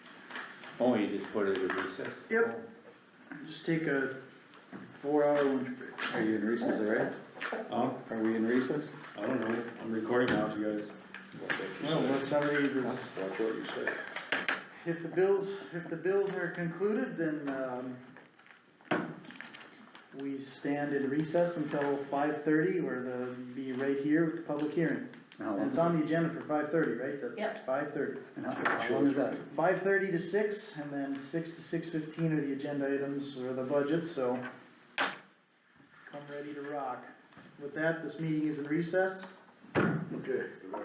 Oh, you just put it at recess? Yep. Just take a four hour lunch break. Are you in recess already? Oh, Are we in recess? I don't know, I'm recording now, you guys. Well, unless somebody that's, Watch what you say. if the bills, if the bills are concluded, then, um, we stand in recess until five thirty, where the, be right here with the public hearing. How And long, it's on the agenda for five thirty, right? The- Yep. Five thirty. and how how long is that? Five thirty to six, and then six to six fifteen are the agenda items or the budget, so come ready to rock. With that, this meeting is in recess. Okay.